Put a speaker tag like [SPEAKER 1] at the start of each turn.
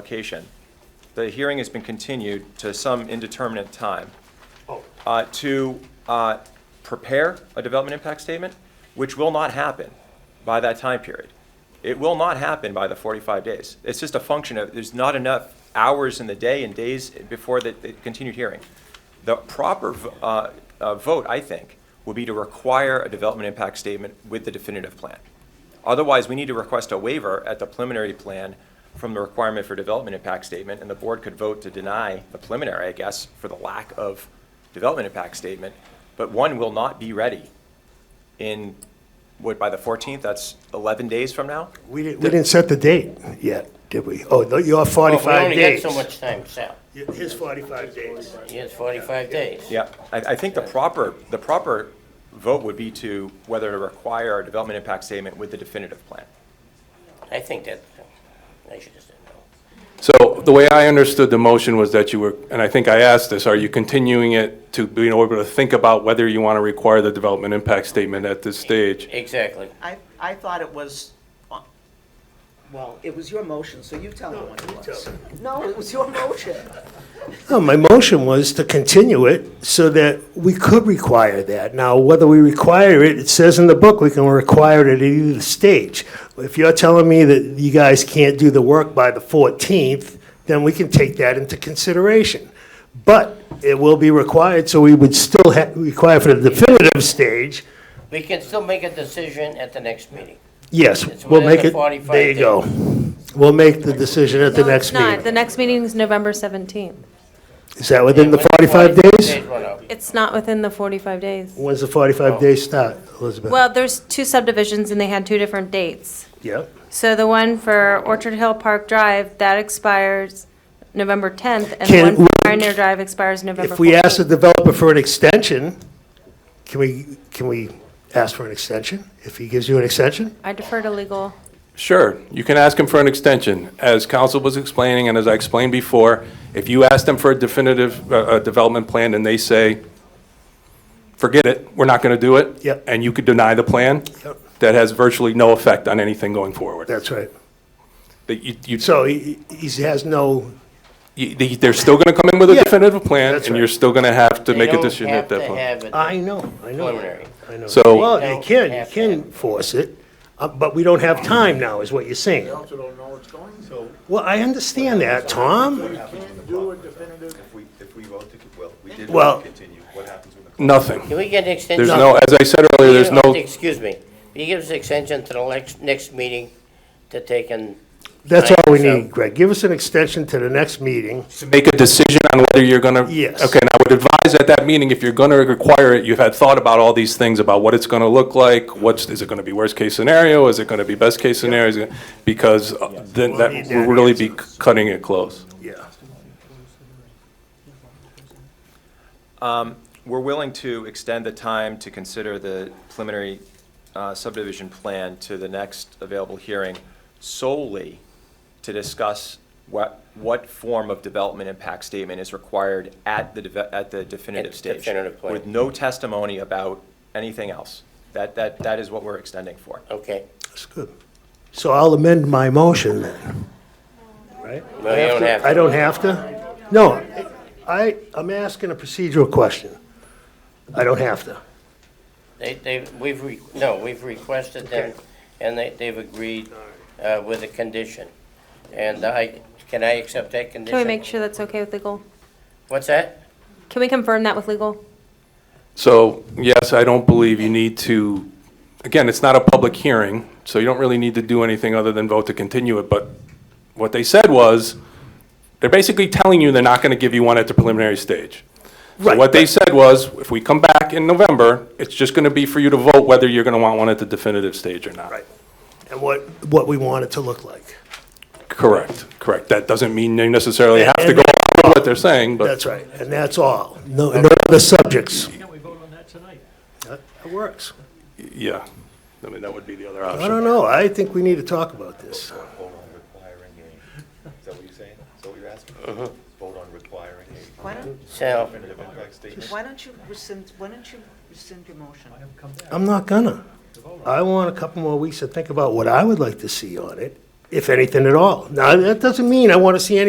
[SPEAKER 1] application. The hearing has been continued to some indeterminate time
[SPEAKER 2] Oh,
[SPEAKER 1] uh, to uh, prepare a development impact statement, which will not happen by that time period. It will not happen by the 45 days. It's just a function of, there's not enough hours in the day and days before the the continued hearing. The proper v- uh, uh, vote, I think, will be to require a development impact statement with the definitive plan. Otherwise, we need to request a waiver at the preliminary plan from the requirement for development impact statement, and the board could vote to deny the preliminary, I guess, for the lack of development impact statement, but one will not be ready in, what, by the 14th, that's 11 days from now?
[SPEAKER 2] we didn't,
[SPEAKER 3] We didn't set the date yet, did we? Oh, no, your
[SPEAKER 4] Well, we
[SPEAKER 3] 45
[SPEAKER 4] only got
[SPEAKER 3] days.
[SPEAKER 4] so much time, Sal.
[SPEAKER 2] his 45 days.
[SPEAKER 4] He has 45 days.
[SPEAKER 1] Yeah, I, I think the proper, the proper vote would be to whether to require a development impact statement with the definitive plan.
[SPEAKER 4] I think that, I should just, no.
[SPEAKER 5] So the way I understood the motion was that you were, and I think I asked this, are you continuing it to be able to think about whether you want to require the development impact statement at this stage?
[SPEAKER 4] exactly.
[SPEAKER 6] I, I thought it was, on- well, it was your motion, so you tell me what it was. No, it was your motion.
[SPEAKER 3] No, my motion was to continue it so that we could require that. Now, whether we require it, it says in the book, we can require it at either stage. If you're telling me that you guys can't do the work by the 14th, then we can take that into consideration. But it will be required, so we would still ha require for the definitive stage,
[SPEAKER 4] We can still make a decision at the next meeting.
[SPEAKER 3] yes,
[SPEAKER 4] It's
[SPEAKER 3] we'll
[SPEAKER 4] within
[SPEAKER 3] make
[SPEAKER 4] the
[SPEAKER 3] it,
[SPEAKER 4] 45
[SPEAKER 3] there you
[SPEAKER 4] days.
[SPEAKER 3] go. We'll make the decision at the
[SPEAKER 7] No,
[SPEAKER 3] next
[SPEAKER 7] it's not. The
[SPEAKER 3] meeting.
[SPEAKER 7] next meeting is November 17th.
[SPEAKER 3] Is that within the
[SPEAKER 4] When
[SPEAKER 3] 45 days?
[SPEAKER 4] run out.
[SPEAKER 7] It's not within the 45 days.
[SPEAKER 3] When's the
[SPEAKER 4] Oh.
[SPEAKER 3] 45 days start, Elizabeth?
[SPEAKER 7] Well, there's two subdivisions and they had two different dates.
[SPEAKER 3] Yep.
[SPEAKER 7] So the one for Orchard Hill Park Drive, that expires November 10th, and
[SPEAKER 3] Can-
[SPEAKER 7] the one for Pioneer Drive expires November
[SPEAKER 3] If we ask the
[SPEAKER 7] 14th.
[SPEAKER 3] developer for an extension, can we, can we ask for an extension? If he gives you an extension?
[SPEAKER 7] I defer to legal.
[SPEAKER 5] Sure, you can ask him for an extension. As council was explaining, and as I explained before, if you ask them for a definitive, uh, uh development plan and they say, forget it, we're not going to do it.
[SPEAKER 3] Yep.
[SPEAKER 5] And you could deny the plan,
[SPEAKER 3] Yep.
[SPEAKER 5] that has virtually no effect on anything going forward.
[SPEAKER 3] That's right.
[SPEAKER 5] That you, you,
[SPEAKER 3] So he, he has no,
[SPEAKER 5] you- they- they're still going to come in with a
[SPEAKER 3] Yeah,
[SPEAKER 5] definitive plan
[SPEAKER 3] that's
[SPEAKER 5] and
[SPEAKER 3] right.
[SPEAKER 5] you're still going to have to
[SPEAKER 4] They
[SPEAKER 5] make a
[SPEAKER 4] don't
[SPEAKER 5] decision
[SPEAKER 4] have
[SPEAKER 5] at that
[SPEAKER 4] to
[SPEAKER 5] point.
[SPEAKER 4] have it.
[SPEAKER 3] I know, I know.
[SPEAKER 4] Preliminary.
[SPEAKER 3] I know.
[SPEAKER 5] So-
[SPEAKER 3] Well, you can, you
[SPEAKER 4] Don't have
[SPEAKER 3] can force it, uh, but we don't have time now, is what you're saying.
[SPEAKER 2] also don't know what's going, so.
[SPEAKER 3] Well, I understand that, Tom.
[SPEAKER 2] Can't do a definitive.
[SPEAKER 8] If we, if we vote to, well, we did
[SPEAKER 3] Well-
[SPEAKER 8] vote to continue, what happens when the
[SPEAKER 5] Nothing.
[SPEAKER 4] Can we get an extension?
[SPEAKER 5] There's no, as I said earlier, there's
[SPEAKER 4] You know,
[SPEAKER 5] no,
[SPEAKER 4] Excuse me. Will you give us an extension to the next, next meeting to take and
[SPEAKER 3] That's all we
[SPEAKER 4] Right, so-
[SPEAKER 3] need, Greg. Give us an extension to the next meeting.
[SPEAKER 5] to make a decision on whether you're gonna.
[SPEAKER 3] Yes.
[SPEAKER 5] Okay, and I would advise at that meeting, if you're gonna require it, you've had thought about all these things, about what it's gonna look like, what's, is it gonna be worst-case scenario, is it gonna be best-case scenario, is it- because uh, then that
[SPEAKER 3] need
[SPEAKER 5] will
[SPEAKER 3] that
[SPEAKER 5] really be cutting it close.
[SPEAKER 3] Yeah.
[SPEAKER 1] We're willing to extend the time to consider the preliminary uh, subdivision plan to the next available hearing solely to discuss what, what form of development impact statement is required at the, deve- at the definitive
[SPEAKER 4] At
[SPEAKER 1] stage.
[SPEAKER 4] definitive plan.
[SPEAKER 1] With no testimony about anything else. That, that, that is what we're extending for.
[SPEAKER 4] Okay.
[SPEAKER 3] That's good. So I'll amend my motion then, right?
[SPEAKER 4] No, you don't have to.
[SPEAKER 3] I don't have to? No, I, I'm asking a procedural question. I don't have to.
[SPEAKER 4] They, they, we've, re- no, we've requested them, and they, they've agreed uh, with a condition. And I, can I accept that condition?
[SPEAKER 7] Can we make sure that's okay with legal?
[SPEAKER 4] What's that?
[SPEAKER 7] Can we confirm that with legal?
[SPEAKER 5] So, yes, I don't believe you need to, again, it's not a public hearing, so you don't really need to do anything other than vote to continue it, but what they said was, they're basically telling you they're not gonna give you one at the preliminary stage. So
[SPEAKER 3] Right,
[SPEAKER 5] what they said was, if we come back in November, it's just gonna be for you to vote whether you're gonna want one at the definitive stage or not.
[SPEAKER 3] Right. And what, what we want it to look like.
[SPEAKER 5] Correct, correct. That doesn't mean you necessarily have to
[SPEAKER 3] And-
[SPEAKER 5] go along with what they're saying, but.
[SPEAKER 3] That's right, and that's all. No, no other subjects. Can we vote on that tonight? That works.
[SPEAKER 5] Yeah, I mean, that would be the other option.
[SPEAKER 3] I don't know, I think we need to talk about this.
[SPEAKER 8] vote on requiring a, is that what you're saying? Is that what you're asking? Vote on requiring a
[SPEAKER 6] Why don't,
[SPEAKER 4] So,
[SPEAKER 8] definitive impact statement?
[SPEAKER 6] why don't you rescind, why don't you rescind your motion?
[SPEAKER 3] I'm not gonna. I want a couple more weeks to think about what I would like to see on it, if anything at all. Now, that doesn't mean I want to see any